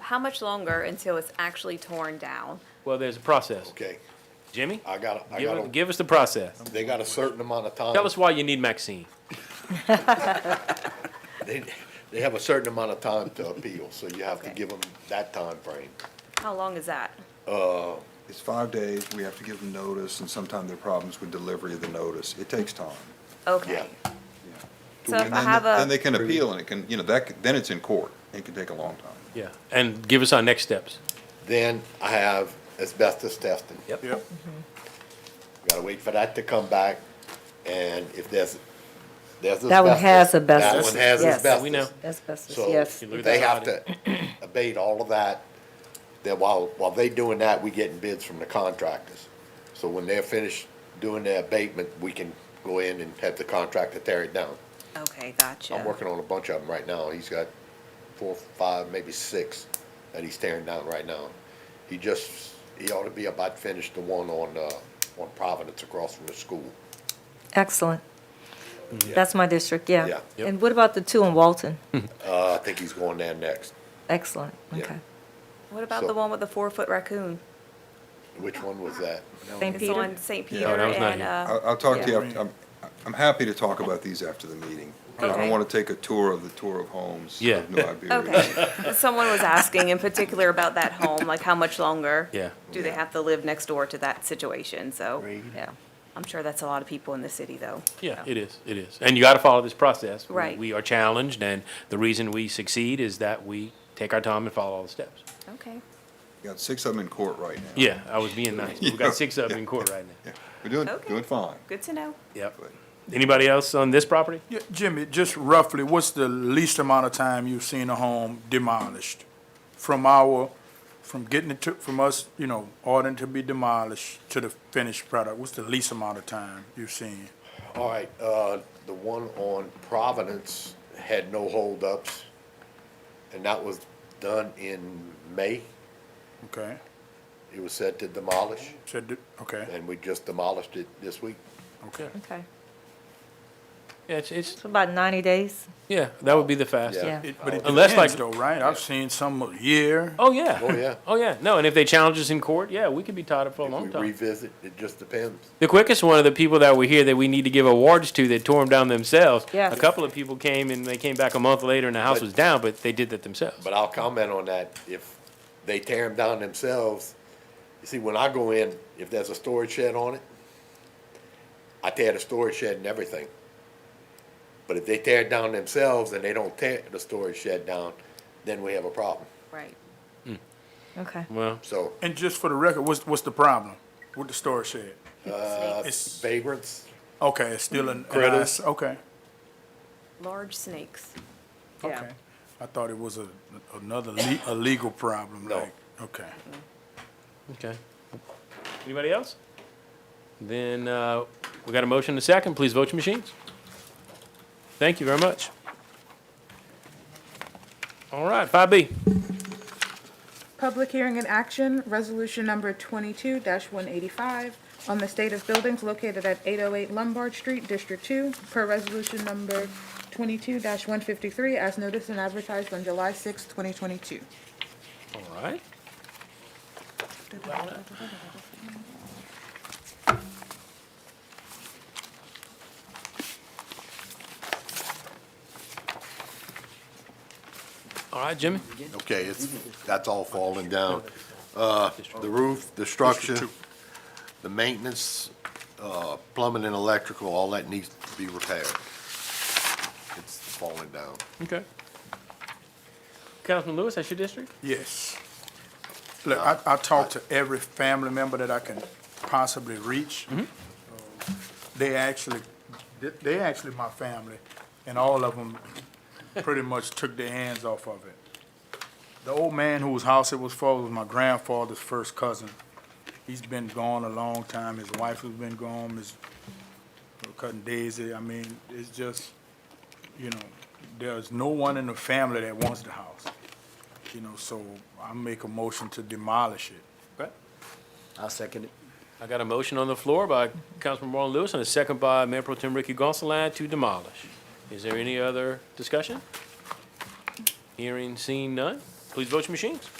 How much longer until it's actually torn down? Well, there's a process. Okay, Jimmy, I got, I give, got, it- a- give us the process. they got a certain amount of time. Tell us why you need Maxine. They, they have a certain amount of time to appeal, so you have to Okay. give them that time frame. How long is that? It's five days, we have to give them notice, and sometimes there are problems with delivery of the notice. It takes time. Okay. Yeah. So if And I then- have Then they a, can appeal, and it can, you know, that, c- then it's in court. It can take a long time. Yeah. And give us our next steps. Then I have asbestos testing. Yep. Gotta wait for that to come back, and if there's, there's asbestos. That one has That asbestos, one has yes. asbestos. We know. Asbestos, So yes. You look at they have that to abate all of that, then while, while they doing that, we getting bids from the contractors. So when they're finished doing their abatement, we can go in and have the contractor tear it down. okay, I'm gotcha. working on a bunch of them right now. He's got four, five, maybe six that he's tearing down right now. He just, he ought to be about finished the one on, uh, on Providence across from the school. Excellent. That's my district, Yeah. yeah. Yep. And what about the two in Walton? Uh, I think he's going there next. Excellent, Yeah. okay. What about so- the one with the four-foot raccoon? Which one was that? St. It's Peter? on St. Yeah. Peter No, that was not and, here. I'll, uh, I'll talk to you, Yeah. after- I'm, I'm happy to talk about these after the meeting. I Okay. don't want to take a tour of the tour of homes Yeah. of New Iberia. uh, Uh, okay. Someone was asking in particular about that home, like how much longer? Yeah. Do they have to live next door to that situation? So, Yeah. I'm sure that's a lot of people in the city though. Yeah, it is, it is. And you gotta follow this process. We- Right. We are challenged, and the reason we succeed is that we take our time and follow all the steps. Okay. We Got six of them in court right now. Yeah, I was being nice. We've got six of them in court right now. Yeah. We're doing, Okay. doing fine. Good to know. Yep. Anybody else on this property? Yeah, Jimmy, just roughly, what's the least amount of time you've seen a home demolished? From our, from getting it to, from us, you know, ordering to be demolished to the finished product, what's the least amount of time you've seen? All right, uh, the one on Providence had no holdups, and that was done in May. Okay, It was set to demolish, so, do- okay, and we just demolished it this week. okay. Okay. Yeah, it's, it's, So About 90 days? yeah, that would be the fastest. Yeah. It- But it Unless, like- depends though, right? I've seen some a year, Oh, yeah. Oh, yeah. Oh, yeah. No, and if they challenge us in court, yeah, we could be tied up for a long If we time. revisit, it just depends. The quickest one of the people that were here that we need to give awards to that tore them down themselves. Yeah. A couple of people came and they came back a month later and the house But- was down, but they did that themselves. But I'll comment on that, if they tear them down themselves, you see, when I go in, if there's a storage shed on it, I tear the storage shed and everything. But if they tear it down themselves and they don't tear the storage shed down, then we have a problem, Right. Okay. Well, so. and just for the record, what's, what's the problem with the storage shed? Uh, It's- vagrants. Okay, it's still in. Critters. Okay, Large snakes. Yeah. okay. I thought it was a, another le- a legal problem, No. like, okay. okay. Anybody else? Then, uh, we got a motion and a second. Please vote your machines. Thank you very much. All right, five B. Public hearing and action, resolution number twenty-two one eighty-five on the state of buildings located at eight oh eight Lombard Street, District Two, per resolution number twenty-two one fifty-three, as noticed and advertised on July sixth, twenty twenty-two. All right. All right, Jimmy? Okay, it's, that's all falling down. Uh, the roof, the structure, the maintenance, uh, plumbing and electrical, all that needs to be repaired. It's falling down. Okay. Councilman Lewis, that's your district? Yes. Look, I, I talked to every family member that I can possibly reach. They actually, they- they actually my family, and all of them pretty much took their hands off of it. The old man whose house it was for was my grandfather's first cousin. He's been gone a long time, his wife has been gone, Miss Cutting Daisy, I mean, it's just, you know, there's no one in the family that wants the house. You know, so I make a motion to demolish it. Okay. I'll second it. I got a motion on the floor by Councilman Marlon Lewis and a second by Mayor Pro Tem Ricky Gonsalas to demolish. Is there any other discussion? Hearing, seeing none. Please vote your machines.